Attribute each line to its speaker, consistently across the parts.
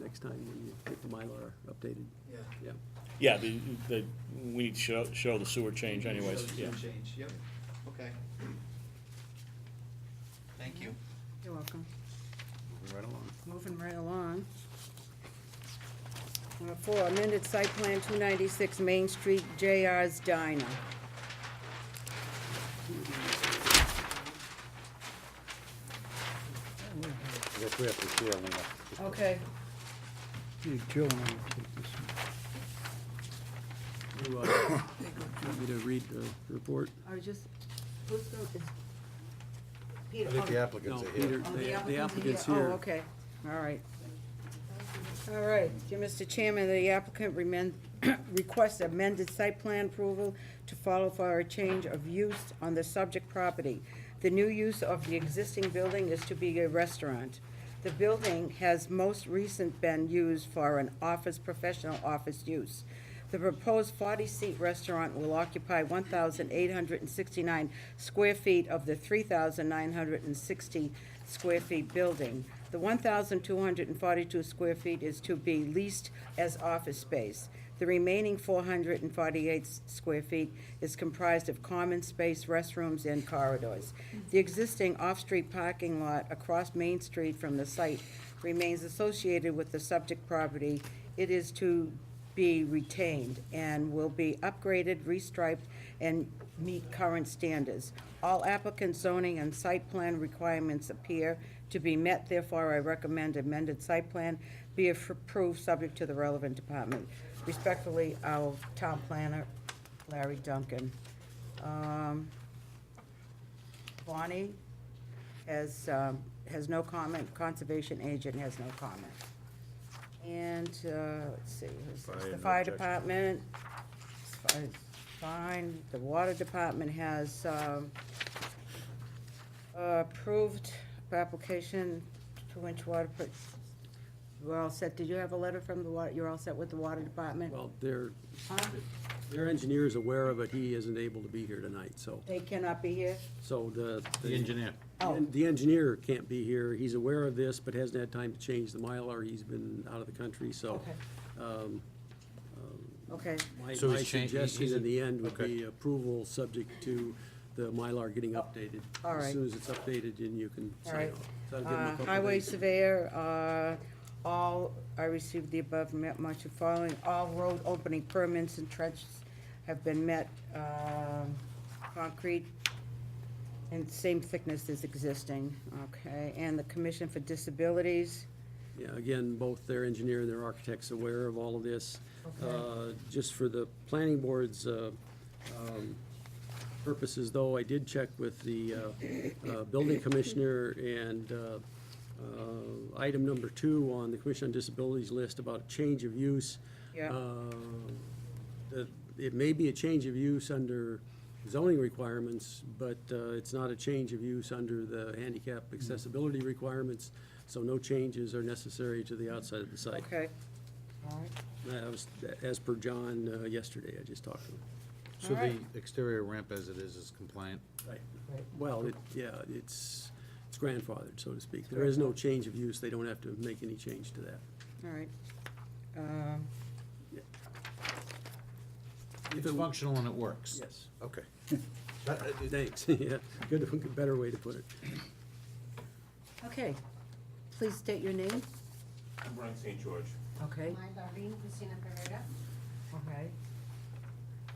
Speaker 1: next time when you get the Mylar updated,
Speaker 2: Yeah.
Speaker 1: yeah.
Speaker 3: Yeah, the, the, we need to show, show the sewer change anyways,
Speaker 2: Shows
Speaker 3: yeah.
Speaker 2: some Change, yep, okay. Thank you.
Speaker 4: You're welcome.
Speaker 1: Moving right along.
Speaker 4: Moving right along. Number four, amended site plan two ninety-six Main Street, JR's Diner.
Speaker 5: Yes, we have to see, Elena.
Speaker 4: Okay.
Speaker 6: Yeah, Joe wanted to take this one.
Speaker 1: You, uh, want me to read the report?
Speaker 4: I was just, who's going, is? Peter,
Speaker 5: I think the
Speaker 4: oh,
Speaker 5: applicants
Speaker 1: Um, No,
Speaker 5: are
Speaker 1: Peter,
Speaker 5: here.
Speaker 4: oh, the
Speaker 1: the- the
Speaker 4: applicant's
Speaker 1: applicant's
Speaker 4: here. Oh,
Speaker 1: here.
Speaker 4: okay, all right. All right, dear Mr. Chairman, the applicant remen- requests amended site plan approval to follow for a change of use on the subject property. The new use of the existing building is to be a restaurant. The building has most recent been used for an office, professional office use. The proposed forty-seat restaurant will occupy one thousand eight hundred and sixty-nine square feet of the three thousand nine hundred and sixty square feet building. The one thousand two hundred and forty-two square feet is to be leased as office space. The remaining four hundred and forty-eight square feet is comprised of common space, restrooms, and corridors. The existing off-street parking lot across Main Street from the site remains associated with the subject property. It is to be retained and will be upgraded, restriped, and meet current standards. All applicant zoning and site plan requirements appear to be met, therefore I recommend amended site plan be af- approved, subject to the relevant department. Respectfully, our town planner, Larry Duncan. Um, Bonnie has, um, has no comment, conservation agent has no comment. And, uh, let's see, who's this?
Speaker 5: Fire,
Speaker 4: the
Speaker 5: no
Speaker 4: fire
Speaker 5: objection.
Speaker 4: department, it's fi- fine, the water department has, um, approved application, two-inch water, put, we're all set, did you have a letter from the water, you're all set with the water department?
Speaker 1: Well, their,
Speaker 4: Huh?
Speaker 1: their engineer is aware of it, he isn't able to be here tonight, so,
Speaker 4: They cannot be here?
Speaker 1: so the.
Speaker 5: The engineer.
Speaker 4: Oh.
Speaker 1: The engineer can't be here, he's aware of this, but hasn't had time to change the Mylar, he's been out of the country, so.
Speaker 4: Okay.
Speaker 1: um,
Speaker 4: Okay,
Speaker 1: My
Speaker 5: So he's
Speaker 1: my
Speaker 5: changed- he's-
Speaker 1: suggestion
Speaker 5: he's-
Speaker 1: in the end would
Speaker 5: okay.
Speaker 1: be approval, subject to the Mylar getting updated.
Speaker 4: Oh. All right.
Speaker 1: As soon as it's updated, then you can
Speaker 4: All
Speaker 1: sign
Speaker 4: right.
Speaker 1: off. That'll give him a
Speaker 4: Uh,
Speaker 1: couple
Speaker 4: Highway
Speaker 1: days.
Speaker 4: surveyor, uh, all, I received the above met much of following, all road opening permits and trenches have been met, um, concrete and same thickness as existing, okay? And the Commission for Disabilities,
Speaker 1: Yeah, again, both their engineer and their architect's aware of all of this.
Speaker 4: Okay.
Speaker 1: Uh, Just for the planning board's uh, um, purposes, though, I did check with the uh, uh, building commissioner, and uh, uh, item number two on the Commission on Disabilities list about change of use.
Speaker 4: Yeah.
Speaker 1: uh, that It may be a change of use under zoning requirements, but uh, it's not a change of use under the handicap accessibility requirements, so no changes are necessary to the outside of the site.
Speaker 4: okay? All right.
Speaker 1: That was, as per John uh, yesterday, I just talked to him.
Speaker 5: So the
Speaker 4: Alright.
Speaker 5: exterior ramp as it is is compliant?
Speaker 1: Well, it, yeah, it's, it's grandfathered, so to speak. There is no change of use, they don't have to make any change to that.
Speaker 4: All right. Um,
Speaker 5: It's functional and it works?
Speaker 1: Yes. uh,
Speaker 5: Okay.
Speaker 1: Thanks, yeah, good, better way to put it.
Speaker 4: Okay, please state your name.
Speaker 7: I'm Brian St. George.
Speaker 4: Okay.
Speaker 8: My Darlene Cristina Pereira.
Speaker 4: Okay.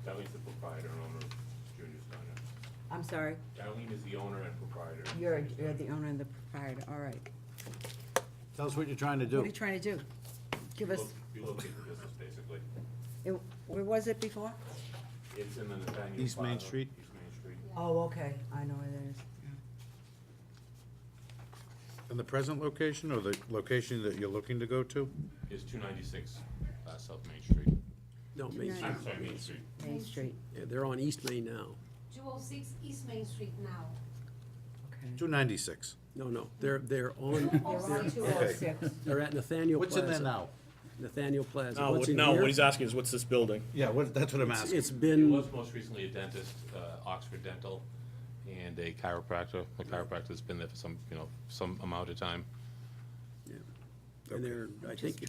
Speaker 7: Darlene's the proprietor and owner of Junior's Diner.
Speaker 4: I'm sorry,
Speaker 7: Darlene is the owner and proprietor. of
Speaker 4: you're,
Speaker 7: Junior's
Speaker 4: you're
Speaker 7: Diner.
Speaker 4: the owner and the proprietor, all right.
Speaker 5: Tell us what you're trying to
Speaker 4: What are
Speaker 5: do.
Speaker 4: you trying to do? Give us,
Speaker 7: We locate the business, basically.
Speaker 4: it- where was it before?
Speaker 7: It's in the Nathaniel.
Speaker 5: East Main
Speaker 7: Plaza,
Speaker 5: Street?
Speaker 7: East Main Street.
Speaker 4: Oh, okay, I know where that is.
Speaker 5: And the present location or the location that you're looking to go to?
Speaker 7: It's two ninety-six, uh, South Main Street.
Speaker 1: No, Main Street,
Speaker 7: I'm sorry, Main Street.
Speaker 4: Main Street,
Speaker 1: yeah, they're on East Main now.
Speaker 8: 206 East Main Street now.
Speaker 4: okay.
Speaker 5: 296.
Speaker 1: No, no, they're, they're on,
Speaker 8: Or
Speaker 4: Two
Speaker 8: 206.
Speaker 4: oh six.
Speaker 1: they're at Nathaniel
Speaker 5: What's
Speaker 1: Plaza.
Speaker 5: in there now?
Speaker 1: Nathaniel Plaza.
Speaker 3: No,
Speaker 1: What's
Speaker 3: Oh, what-
Speaker 1: in
Speaker 3: no,
Speaker 1: here?
Speaker 3: what he's asking is what's this building?
Speaker 5: Yeah, what, that's what I'm
Speaker 1: It's-
Speaker 5: asking.
Speaker 1: It's
Speaker 7: It
Speaker 1: been,
Speaker 7: was most recently a dentist, uh, Oxford Dental, and a chiropractor. The chiropractor's been there for some, you know, some amount of time.
Speaker 1: and they're, I think,